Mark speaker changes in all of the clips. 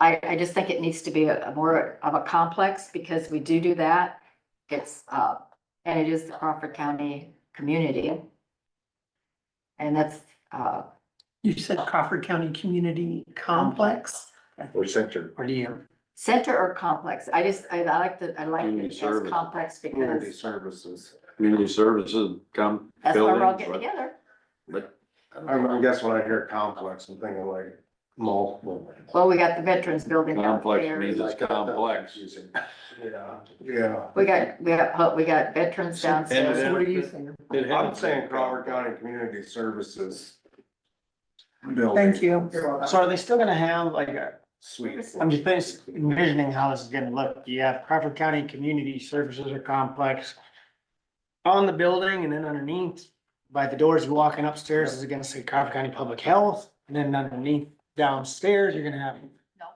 Speaker 1: I, I just think it needs to be a a more of a complex because we do do that. It's, uh, and it is the Crawford County community. And that's, uh,
Speaker 2: You said Crawford County Community Complex
Speaker 3: or center.
Speaker 2: or do you?
Speaker 1: center or complex. I just, I I like the, I like
Speaker 4: Community
Speaker 1: it as
Speaker 4: service.
Speaker 1: complex
Speaker 3: Community
Speaker 1: because
Speaker 3: services.
Speaker 4: Community services come.
Speaker 1: that's where we're all
Speaker 4: buildings,
Speaker 1: getting
Speaker 4: but-
Speaker 1: together.
Speaker 4: But
Speaker 3: I I guess when I hear complex, I'm thinking like multiple. uh,
Speaker 1: Well, we got the veterans building
Speaker 4: Complex means-
Speaker 1: downstairs.
Speaker 4: It's complex.
Speaker 3: Yeah, yeah.
Speaker 1: We got, we got, we got veterans
Speaker 4: And
Speaker 1: downstairs.
Speaker 4: then-
Speaker 2: So what are you saying?
Speaker 4: it
Speaker 3: I'm
Speaker 4: happens.
Speaker 3: saying Crawford County Community Services.
Speaker 2: Thank you.
Speaker 5: So are they still gonna have like, a-
Speaker 3: Sweet.
Speaker 5: I'm just thinking- envisioning how this is gonna look, you have Crawford County Community Services or Complex on the building and then underneath, by the doors you walking upstairs is gonna say Crawford County Public Health, and then underneath downstairs, you're gonna have
Speaker 1: No.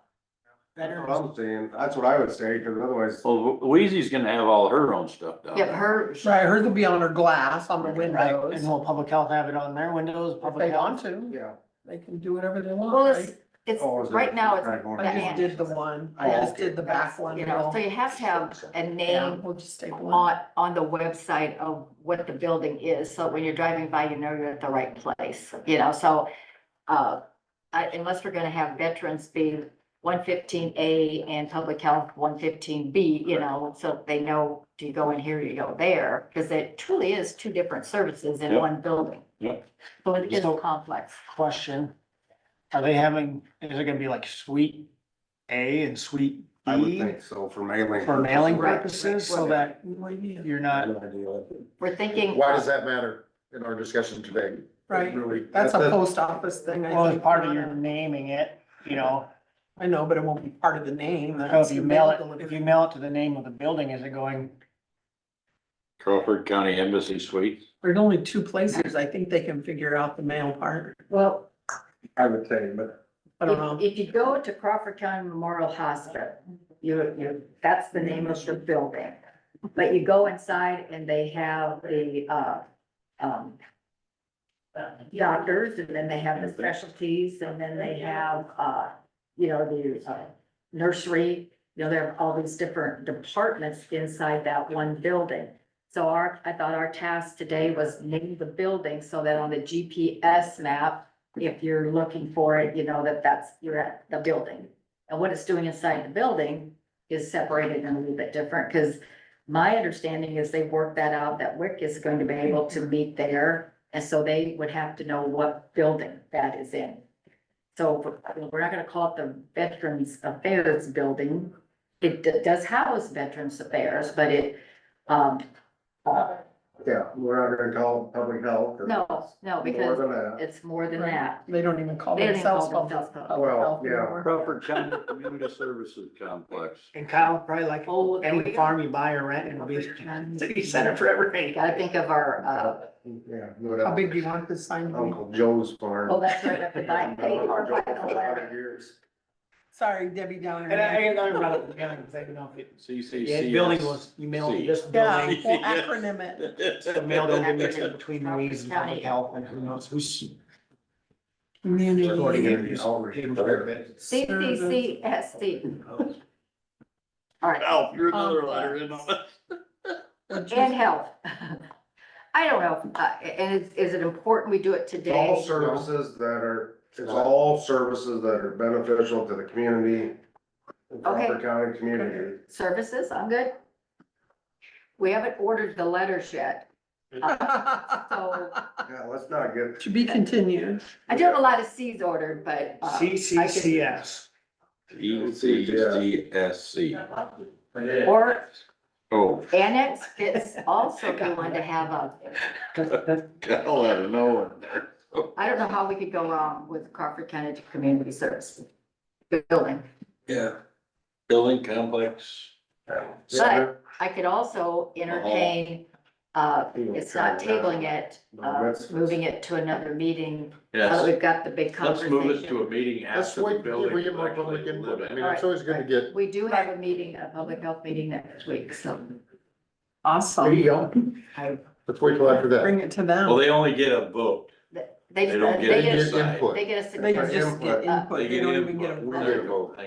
Speaker 3: That's
Speaker 5: veterans.
Speaker 3: what I'm saying, that's what I would say, because otherwise,
Speaker 4: Well, Wheezy's gonna have all her own stuff down
Speaker 1: Yeah,
Speaker 4: there.
Speaker 1: her,
Speaker 2: Right, hers will be on her glass on the
Speaker 5: Right,
Speaker 2: windows.
Speaker 5: and will public health have it on their windows,
Speaker 2: If
Speaker 5: public
Speaker 2: they
Speaker 5: health?
Speaker 2: want to,
Speaker 3: yeah.
Speaker 2: they can do whatever they
Speaker 1: well,
Speaker 2: want.
Speaker 1: it's,
Speaker 2: right?
Speaker 1: it's,
Speaker 3: Oh, is it-
Speaker 1: right now, it's
Speaker 3: Right, more-
Speaker 2: I just did the one, I
Speaker 3: Oh,
Speaker 2: just
Speaker 3: okay.
Speaker 2: did the back one.
Speaker 1: You know,
Speaker 2: girl.
Speaker 1: so you have to have a
Speaker 2: Yeah,
Speaker 1: name
Speaker 2: we'll just take one.
Speaker 1: on, on the website of what the building is, so when you're driving by, you know you're at the right place, you know, so. Uh, I- unless we're gonna have veterans be one fifteen A and public health one fifteen B, you know, so they know, do you go in here, you go there? Cause it truly is two different services in
Speaker 4: Yep.
Speaker 1: one building.
Speaker 4: Yep.
Speaker 1: So it is
Speaker 5: So-
Speaker 1: complex.
Speaker 5: Question, are they having, is it gonna be like suite A and suite
Speaker 3: I would
Speaker 5: B
Speaker 3: think so, for mailing.
Speaker 5: for mailing
Speaker 1: Right.
Speaker 5: purposes, so that you're not
Speaker 1: We're thinking.
Speaker 3: Why does that matter in our discussion today?
Speaker 2: Right,
Speaker 3: Really,
Speaker 2: that's a
Speaker 3: that-
Speaker 2: post office thing. I
Speaker 5: Well, as
Speaker 2: think,
Speaker 5: part of
Speaker 2: not
Speaker 5: your
Speaker 2: a-
Speaker 5: naming it, you know,
Speaker 2: I know, but it won't be part of the name.
Speaker 5: so Oh, if
Speaker 2: that's
Speaker 5: you
Speaker 2: the
Speaker 5: mail
Speaker 2: delivery.
Speaker 5: it, if you mail it to the name of the building, is it going?
Speaker 4: Crawford County Embassy Suites.
Speaker 2: There's only two places I think they can figure out the mail part.
Speaker 1: Well,
Speaker 3: I would say, but
Speaker 2: I don't know.
Speaker 1: If if you go to Crawford County Memorial Hospital, you, you, that's the name of the building. But you go inside and they have the, uh, um, doctors and then they have the specialties and then they have, uh, you know, the uh, nursery. You know, there are all these different departments inside that one building. So our, I thought our task today was name the building so that on the GPS map, if you're looking for it, you know that that's, you're at the building. And what it's doing inside the building is separated and a little bit different, because my understanding is they worked that out, that WIC is going to be able to meet there, and so they would have to know what building that is in. So we're- we're not gonna call it the Veterans Affairs Building. It d- does house Veterans Affairs, but it, um, uh,
Speaker 3: yeah, we're not gonna call it public health. 'cause
Speaker 1: no, no,
Speaker 3: More
Speaker 1: because
Speaker 3: than that.
Speaker 1: it's more than that.
Speaker 2: They don't even call
Speaker 1: They don't even call
Speaker 2: themselves. public
Speaker 1: themselves public
Speaker 2: health
Speaker 3: Well, yeah.
Speaker 2: anymore.
Speaker 4: Crawford County Community Services Complex.
Speaker 5: And Kyle, probably like
Speaker 1: Oh, there we
Speaker 5: any
Speaker 1: go.
Speaker 5: farm you buy or rent, it'll be city center for
Speaker 1: You
Speaker 5: everything.
Speaker 1: gotta think of our, uh,
Speaker 3: Yeah. no doubt.
Speaker 2: How big do you want this sign to be?
Speaker 3: Uncle Joe's farm.
Speaker 1: oh, that's right, up the nine pay or
Speaker 3: Uncle Joe
Speaker 1: five
Speaker 3: for
Speaker 1: dollar.
Speaker 3: 100 years.
Speaker 2: Sorry, Debbie Downer.
Speaker 5: And I, and I brought up the building, because I didn't know if it, yeah,
Speaker 4: CCCS.
Speaker 5: the building was, you mailed it, this
Speaker 2: Yeah,
Speaker 5: building.
Speaker 2: we'll acronym it.
Speaker 5: The mail building mixed in between Louise and public health and who knows who's.
Speaker 3: Recording
Speaker 2: Community.
Speaker 3: interviews.
Speaker 1: CCCSD. All right,
Speaker 4: Alf, you're another
Speaker 1: Oh,
Speaker 4: letter in on it.
Speaker 1: and health. I don't know, uh, and is, is it important we do it
Speaker 3: It's all
Speaker 1: today?
Speaker 3: services that are, it's all services that are beneficial to the community. the Crawford County community.
Speaker 1: Services, I'm good. We haven't ordered the letters yet. So
Speaker 3: Yeah, let's not get.
Speaker 2: To be continued.
Speaker 1: I do have a lot of Cs ordered, but. uh, I could-
Speaker 5: CCCS.
Speaker 4: CCCSC.
Speaker 1: Or
Speaker 4: Oh,
Speaker 1: annex fits also if you wanted to have a,
Speaker 4: hell, I don't know.
Speaker 1: I don't know how we could go wrong with Crawford County Community Service Building.
Speaker 4: Yeah. Building complex.
Speaker 3: But
Speaker 1: I could also entertain, uh, it's not tabling it, uh, moving it to another meeting. Now that
Speaker 4: Yes,
Speaker 1: we've got the big
Speaker 4: let's move it
Speaker 1: conversation.
Speaker 4: to a meeting
Speaker 3: That's
Speaker 4: after the
Speaker 3: what-
Speaker 4: building.
Speaker 3: we get more
Speaker 4: is actually
Speaker 3: public input.
Speaker 4: living.
Speaker 3: I mean, it's always gonna get.
Speaker 1: We do have a meeting, a public health meeting next week, so.
Speaker 3: There you
Speaker 2: Awesome.
Speaker 3: go. Let's wait till after that.
Speaker 2: Bring it to
Speaker 4: Well,
Speaker 2: them.
Speaker 4: they only get a vote.
Speaker 1: They,
Speaker 4: They don't
Speaker 1: they
Speaker 4: get
Speaker 1: get,
Speaker 4: inside.
Speaker 1: they get a
Speaker 2: They
Speaker 1: suggestion.
Speaker 2: just get
Speaker 3: Input.
Speaker 2: input.
Speaker 4: They get
Speaker 2: don't even get a
Speaker 4: input.
Speaker 2: vote.
Speaker 4: We're their vote.